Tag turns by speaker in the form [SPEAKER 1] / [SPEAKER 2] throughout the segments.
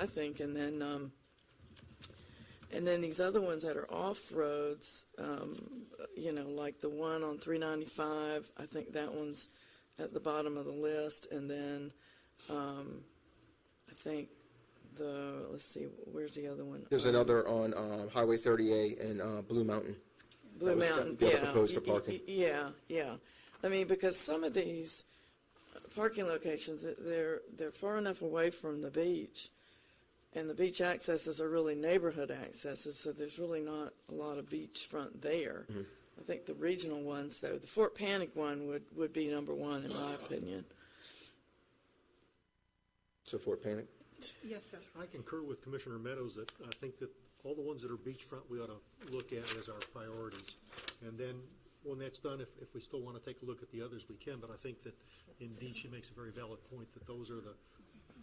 [SPEAKER 1] I think, and then, um, and then these other ones that are off roads, um, you know, like the one on 395, I think that one's at the bottom of the list, and then, um, I think the, let's see, where's the other one?
[SPEAKER 2] There's another on um, Highway 38 and uh, Blue Mountain.
[SPEAKER 1] Blue
[SPEAKER 2] was the-
[SPEAKER 1] Mountain,
[SPEAKER 2] the
[SPEAKER 1] yeah.
[SPEAKER 2] other proposed for
[SPEAKER 1] Y- y-
[SPEAKER 2] parking.
[SPEAKER 1] y- Yeah, yeah. I mean, because some of these parking locations, they're, they're far enough away from the beach, and the beach accesses are really neighborhood accesses, so there's really not a lot of beachfront there.
[SPEAKER 2] Mm-hmm.
[SPEAKER 1] I think the regional ones, though, the Fort Panic one would, would be number one, in my opinion.
[SPEAKER 2] So Fort Panic.
[SPEAKER 3] Yes, sir.
[SPEAKER 4] I concur with Commissioner Meadows that I think that all the ones that are beachfront, we ought to look at as our priorities. And then, when that's done, if, if we still want to take a look at the others, we can, but I think that indeed she makes a very valid point that those are the,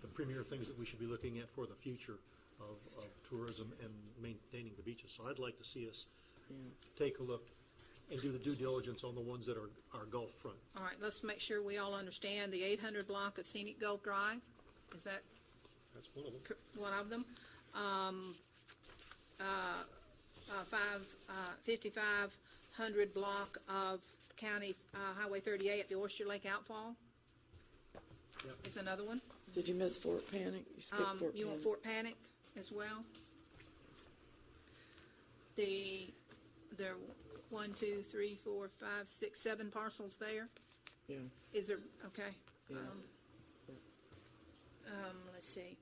[SPEAKER 4] the premier things that we should be looking at for the future of, of tourism and maintaining the beaches. So I'd like to see us take a look and do the due diligence on the ones that are, are Gulf front.
[SPEAKER 3] All right, let's make sure we all understand the 800 block of Scenic Gulf Drive. Is that
[SPEAKER 4] That's one of them.
[SPEAKER 3] cor- one of them? Um, uh, uh, five, uh, 5500 block of County uh, Highway 38 at the Oyster Lake Outfall
[SPEAKER 4] Yep.
[SPEAKER 3] is another one.
[SPEAKER 1] Did you miss Fort Panic? You skipped
[SPEAKER 3] Um,
[SPEAKER 1] Fort
[SPEAKER 3] You want
[SPEAKER 1] Panic?
[SPEAKER 3] Fort Panic as well? The, there are one, two, three, four, five, six, seven parcels there.
[SPEAKER 1] Yeah,
[SPEAKER 3] Is there, okay.
[SPEAKER 1] yeah.
[SPEAKER 3] Um, let's see,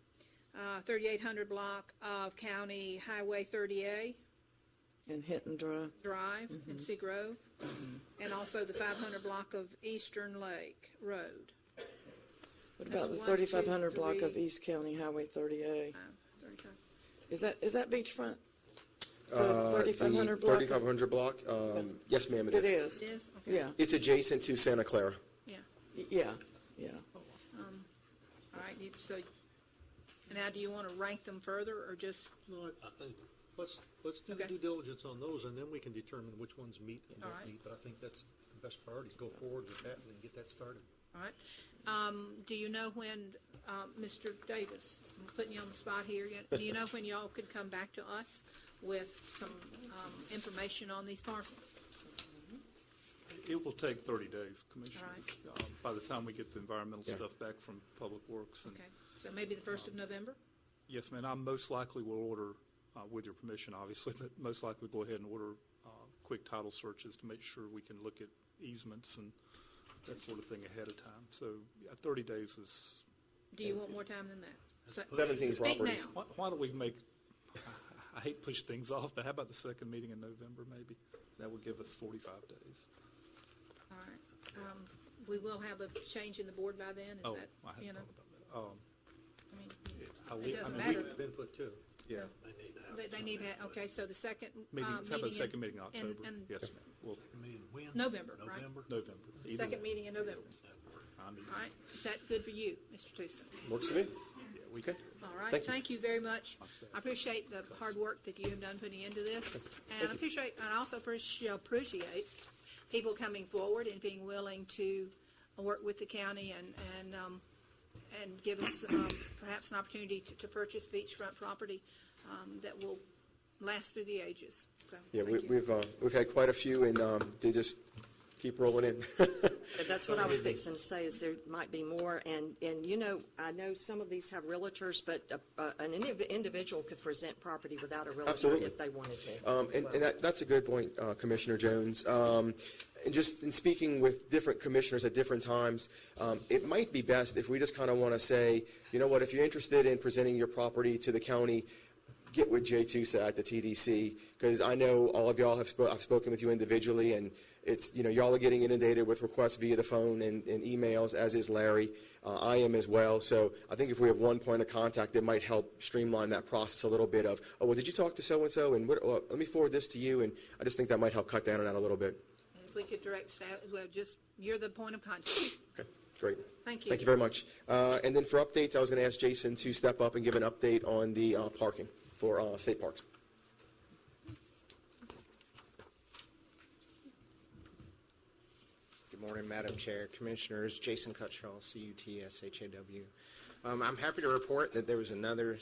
[SPEAKER 3] uh, thirty-eight hundred block of County Highway thirty-A
[SPEAKER 1] And Hinton Drive,
[SPEAKER 3] Drive
[SPEAKER 1] Mm-hmm.
[SPEAKER 3] in Sea Grove, and also the five hundred block of Eastern Lake Road.
[SPEAKER 1] what
[SPEAKER 3] That's
[SPEAKER 1] about the
[SPEAKER 3] one, two,
[SPEAKER 1] 3500 block of
[SPEAKER 3] three.
[SPEAKER 1] East County Highway 38?
[SPEAKER 3] Um, 35.
[SPEAKER 1] Is that, is that beachfront? The
[SPEAKER 2] Uh, the
[SPEAKER 1] 3500 block?
[SPEAKER 2] 3500 block. Um, yes, ma'am, it
[SPEAKER 1] It
[SPEAKER 2] is.
[SPEAKER 1] is,
[SPEAKER 3] It is, okay.
[SPEAKER 1] yeah,
[SPEAKER 2] It's adjacent to Santa Clara.
[SPEAKER 3] Yeah,
[SPEAKER 1] y- yeah, yeah.
[SPEAKER 3] all right, you, so, now do you want to rank them further, or just,
[SPEAKER 4] No, I- let's, let's do the
[SPEAKER 3] Okay.
[SPEAKER 4] due diligence on those, and then we can determine which ones meet and
[SPEAKER 3] All right.
[SPEAKER 4] don't meet. But I think that's the best priorities, go forward with that and then get that started.
[SPEAKER 3] all right? Um, do you know when, uh, Mr. Davis, I'm putting you on the spot here yet, do you know when y'all could come back to us with some, um, information on these parcels?
[SPEAKER 5] It will take 30 days, Commissioner,
[SPEAKER 3] All
[SPEAKER 5] um, by the time we get the environmental stuff back from Public Works. and
[SPEAKER 3] Okay, so maybe the first of November?
[SPEAKER 5] Yes, ma'am, I most likely will order, uh, with your permission, obviously, but most likely go ahead and order uh, quick title searches to make sure we can look at easements and that sort of thing ahead of time. So yeah, 30 days is,
[SPEAKER 3] Do you want more time than that? So-
[SPEAKER 2] 17 properties.
[SPEAKER 3] Speak now.
[SPEAKER 5] why why don't we make, I hate to push things off, but how about the second meeting in November, maybe? That would give us 45 days.
[SPEAKER 3] All right. Um, We will have a change in the board by then, is
[SPEAKER 5] Oh,
[SPEAKER 3] that,
[SPEAKER 5] I hadn't
[SPEAKER 3] you know,
[SPEAKER 5] thought about that. Um,
[SPEAKER 3] I mean,
[SPEAKER 5] I will-
[SPEAKER 3] It
[SPEAKER 5] I
[SPEAKER 3] doesn't
[SPEAKER 5] mean,
[SPEAKER 4] We
[SPEAKER 3] matter.
[SPEAKER 4] have input too.
[SPEAKER 5] Yeah.
[SPEAKER 3] they- they need that, okay, so the second. uh,
[SPEAKER 5] Meeting, how about
[SPEAKER 3] in-
[SPEAKER 5] second meeting in
[SPEAKER 3] in-
[SPEAKER 5] October?
[SPEAKER 3] in
[SPEAKER 5] Yes, ma'am. Well,
[SPEAKER 3] November, right?
[SPEAKER 5] November. either
[SPEAKER 3] Second
[SPEAKER 5] one.
[SPEAKER 3] meeting in November.
[SPEAKER 5] I'm easy.
[SPEAKER 3] All right, is that good for you, Mr. Tusa?
[SPEAKER 2] Works for me.
[SPEAKER 5] Yeah, we-
[SPEAKER 2] Okay.
[SPEAKER 3] All right,
[SPEAKER 2] Thank you.
[SPEAKER 3] thank you very much. I appreciate the hard work that you have done putting into this. And I appreciate, and I also appreciate, appreciate people coming forward and being willing to work with the county and, and, um, and give us, um, perhaps an opportunity to, to purchase beachfront property, um, that will last through the ages. So,
[SPEAKER 2] Yeah, we,
[SPEAKER 3] thank you.
[SPEAKER 2] we've, uh, we've had quite a few, and um, they just keep rolling in.
[SPEAKER 6] But That's what I was fixing to say, is there might be more, and, and you know, I know some of these have realtors, but uh, uh, an indiv- individual could present property without a realtor
[SPEAKER 2] Absolutely.
[SPEAKER 6] if they wanted to.
[SPEAKER 2] Um, and, and that, that's a good point, uh, Commissioner Jones. Um, and just in speaking with different commissioners at different times, um, it might be best if we just kind of want to say, you know what, if you're interested in presenting your property to the county, get with Jay Tusa at the TDC, because I know all of y'all have, spo- I've spoken with you individually, and it's, you know, y'all are getting inundated with requests via the phone and, and emails, as is Larry. Uh, I am as well. So I think if we have one point of contact, it might help streamline that process a little bit of, oh, well, did you talk to so-and-so? And what, well, let me forward this to you. And I just think that might help cut down on that a little bit.
[SPEAKER 3] And If we could direct staff, well, just, you're the point of contact.
[SPEAKER 2] Okay, great.
[SPEAKER 3] Thank you.
[SPEAKER 2] Thank you very much. Uh, and then for updates, I was going to ask Jason to step up and give an update on the uh, parking for uh, state parks.
[SPEAKER 7] Good morning, Madam Chair, Commissioners. Jason Cuttrell, C-U-T-S-H-A-W. Um, I'm happy to report that there was another